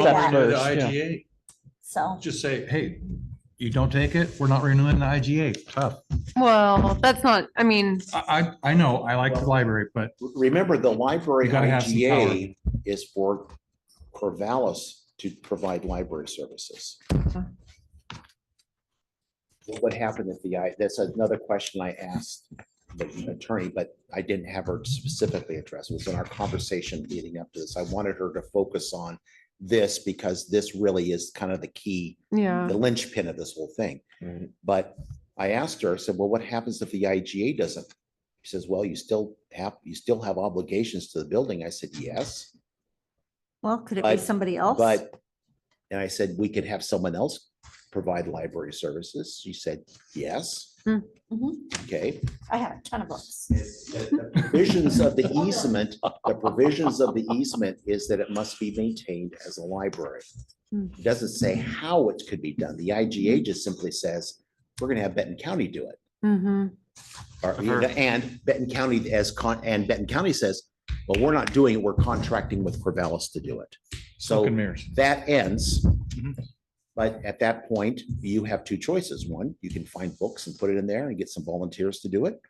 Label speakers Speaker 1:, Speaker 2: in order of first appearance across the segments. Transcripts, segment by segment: Speaker 1: accept
Speaker 2: Yeah.
Speaker 3: renew the
Speaker 1: first, yeah.
Speaker 3: IGA,
Speaker 2: So,
Speaker 3: just say, hey, you don't take it, we're not renewing the IGA, tough.
Speaker 4: Well, that's not, I mean,
Speaker 3: I, I, I know, I like the library, but
Speaker 5: Remember, the library
Speaker 3: You gotta have some
Speaker 5: IGA is for Corvallis to provide library services. What would happen if the, I that's another question I asked the attorney, but I didn't have her specifically address. It was in our conversation leading up to this. I wanted her to focus on this because this really is kind of the key
Speaker 4: yeah,
Speaker 5: the linchpin of this whole thing.
Speaker 1: Right.
Speaker 5: But I asked her, I said, well, what happens if the IGA doesn't? She says, well, you still have, you still have obligations to the building. I said, yes,
Speaker 2: well, could it be
Speaker 5: But-
Speaker 2: somebody else?
Speaker 5: but, and I said, we could have someone else provide library services. She said, yes.
Speaker 4: Hmm.
Speaker 2: Mhm.
Speaker 5: Okay,
Speaker 2: I have a ton of books.
Speaker 5: provisions of the easement, the provisions of the easement is that it must be maintained as a library.
Speaker 4: Hmm.
Speaker 5: It Doesn't say how it could be done. The IGA just simply says, we're gonna have Benton County do it.
Speaker 4: hmm
Speaker 5: Or,
Speaker 3: I've
Speaker 5: you
Speaker 3: heard-
Speaker 5: know, and Benton County as con, and Benton County says, well, we're not doing it, we're contracting with Corvallis to do it.
Speaker 3: smoke and
Speaker 5: So
Speaker 3: mirrors.
Speaker 5: that ends.
Speaker 3: Mhm.
Speaker 5: But at that point, you have two choices. One, you can find books and put it in there and get some volunteers to do it.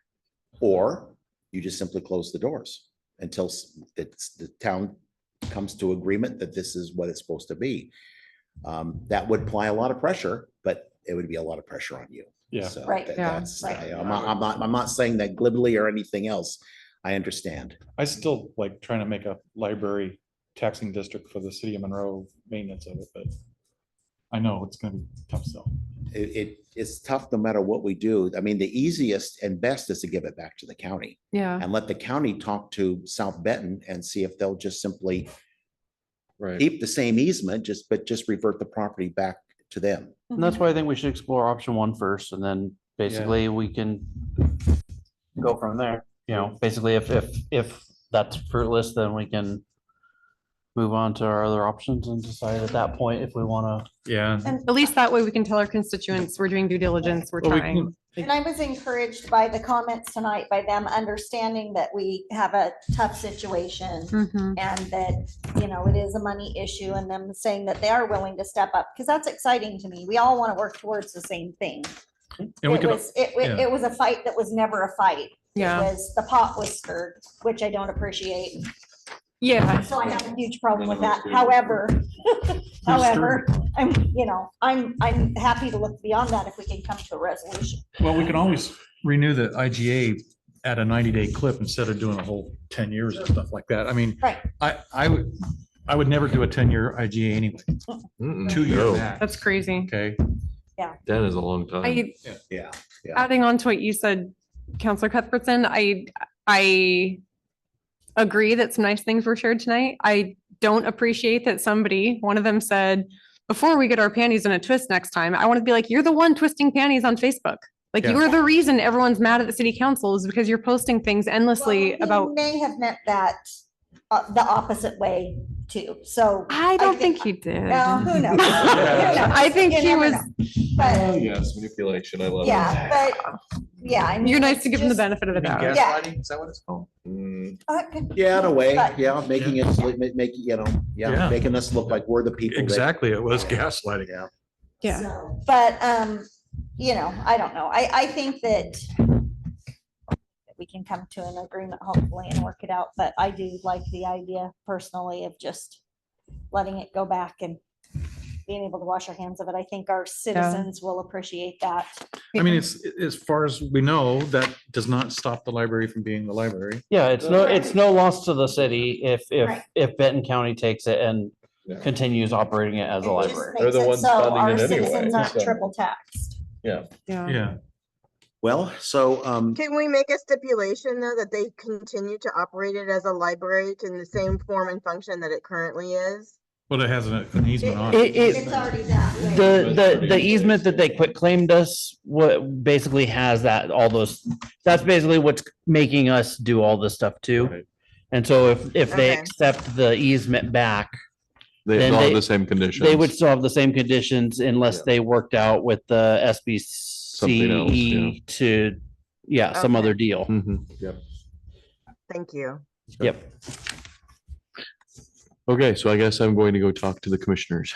Speaker 5: Or you just simply close the doors until s- it's, the town comes to agreement that this is what it's supposed to be. Um, that would apply a lot of pressure, but it would be a lot of pressure on you.
Speaker 1: Yeah.
Speaker 5: So
Speaker 2: Right.
Speaker 5: that-
Speaker 4: Yeah.
Speaker 5: That's, I-
Speaker 2: Right.
Speaker 5: I'm not, I'm not, I'm not saying that glibly or anything else. I understand.
Speaker 1: I still like trying to make a library taxing district for the city of Monroe maintenance of it, but I know it's gonna be tough sell.
Speaker 5: It, it, it's tough no matter what we do. I mean, the easiest and best is to give it back to the county
Speaker 2: Uh-huh.
Speaker 4: yeah.
Speaker 5: and let the county talk to South Benton and see if they'll just simply
Speaker 1: Right.
Speaker 5: keep the same easement, just, but just revert the property back to them.
Speaker 6: And that's why I think we should explore option one first and then basically we can go from there. You know, basically if, if, if that's fruitless, then we can move on to our other options and decide at that point if we want to.
Speaker 3: Yeah.
Speaker 4: At least that way we can tell our constituents we're doing due diligence, we're
Speaker 3: Well, we
Speaker 4: trying.
Speaker 2: And I was encouraged by the comments tonight, by them understanding that we have a tough situation
Speaker 4: Mhm.
Speaker 2: and that, you know, it is a money issue and them saying that they are willing to step up, because that's exciting to me. We all want to work towards the same thing.
Speaker 3: And we
Speaker 2: It
Speaker 3: could,
Speaker 2: was, it, wa-
Speaker 3: yeah.
Speaker 2: it was a fight that was never a fight. It
Speaker 4: Yeah,
Speaker 2: Was, the pot was stirred, which I don't appreciate.
Speaker 4: yeah,
Speaker 2: So I have a huge problem with that. However, however, I'm, you know, I'm, I'm happy to look beyond that if we can come to a resolution.
Speaker 3: well, we can always renew the IGA at a ninety day clip instead of doing a whole ten years and stuff like that. I mean,
Speaker 2: Right.
Speaker 3: I, I would, I would never do a ten year IGA anyway, two year
Speaker 7: Mm-mm,
Speaker 3: max.
Speaker 4: that's crazy.
Speaker 3: Okay.
Speaker 7: no, That is a long time.
Speaker 4: I,
Speaker 5: Yeah.
Speaker 4: adding on to what you said, Counselor Cuthbertson, I, I agree that some nice things were shared tonight. I don't appreciate that somebody, one of them said, before we get our panties in a twist next time, I want to be like, you're the one twisting panties on Facebook. Like
Speaker 3: Yeah.
Speaker 4: you're the reason everyone's mad at the city council is because you're posting things endlessly
Speaker 2: Well, he
Speaker 4: about,
Speaker 2: May have meant that, uh, the opposite way too, so.
Speaker 4: I don't
Speaker 2: thi-
Speaker 4: think he did.
Speaker 2: Well, who knows? Who knows?
Speaker 4: I think
Speaker 2: You
Speaker 4: he
Speaker 2: never
Speaker 4: was,
Speaker 2: know. But,
Speaker 7: Oh, yes, manipulation, I love
Speaker 2: yeah, but, yeah. I mean,
Speaker 4: you're nice to give him the
Speaker 2: just-
Speaker 4: benefit of the doubt.
Speaker 2: Yeah.
Speaker 7: is that what it's called? Mm,
Speaker 2: uh, could-
Speaker 5: Yeah, in a way,
Speaker 2: But-
Speaker 5: yeah, making us, look- ma- making, you know, yeah,
Speaker 3: Yeah.
Speaker 5: making us look like we're the people. that-
Speaker 3: Exactly. It was gaslighting.
Speaker 5: Yeah.
Speaker 4: Yeah.
Speaker 2: So, But, um, you know, I don't know. I, I think that that we can come to an agreement hopefully and work it out, but I do like the idea personally of just letting it go back and being able to wash our hands of it. I think our citizens will appreciate that.
Speaker 3: I mean, it's, as far as we know, that does not stop the library from being the library.
Speaker 6: Yeah, it's no, it's no loss to the city if,
Speaker 2: Right.
Speaker 6: if, if Benton County takes it and
Speaker 7: Yeah.
Speaker 6: continues operating it as a
Speaker 2: It just
Speaker 6: library.
Speaker 2: makes
Speaker 7: They're the
Speaker 2: it
Speaker 7: ones
Speaker 2: so
Speaker 7: funding
Speaker 2: our
Speaker 7: it anyway,
Speaker 2: citizens aren't
Speaker 7: so.
Speaker 2: Triple taxed.
Speaker 6: Uh-huh.
Speaker 4: Yeah.
Speaker 3: Yeah.
Speaker 5: Well, so, um,
Speaker 8: Can we make a stipulation though that they continue to operate it as a library in the same form and function that it currently is?
Speaker 3: Well, it has an an easement on it.
Speaker 6: It- it-
Speaker 2: It's already that. way.
Speaker 6: The, the,
Speaker 7: pretty
Speaker 6: the
Speaker 7: much
Speaker 6: easement that they
Speaker 7: basically.
Speaker 6: quit claimed us, what basically has that, all those, that's basically what's making us do all this stuff too.
Speaker 7: Right.
Speaker 6: And so if, if they
Speaker 8: Okay.
Speaker 6: accept the easement back,
Speaker 7: They
Speaker 6: Then
Speaker 7: all
Speaker 6: they-
Speaker 7: have the same conditions.
Speaker 6: they would still have the same conditions unless
Speaker 7: Yeah.
Speaker 6: they worked out with the
Speaker 7: else, yeah.
Speaker 6: SBCE to, yeah, some
Speaker 8: Okay.
Speaker 6: other deal.
Speaker 7: Mm-hmm. Mhm.
Speaker 8: Thank you.
Speaker 7: Okay, so I guess I'm going to go talk to the commissioners.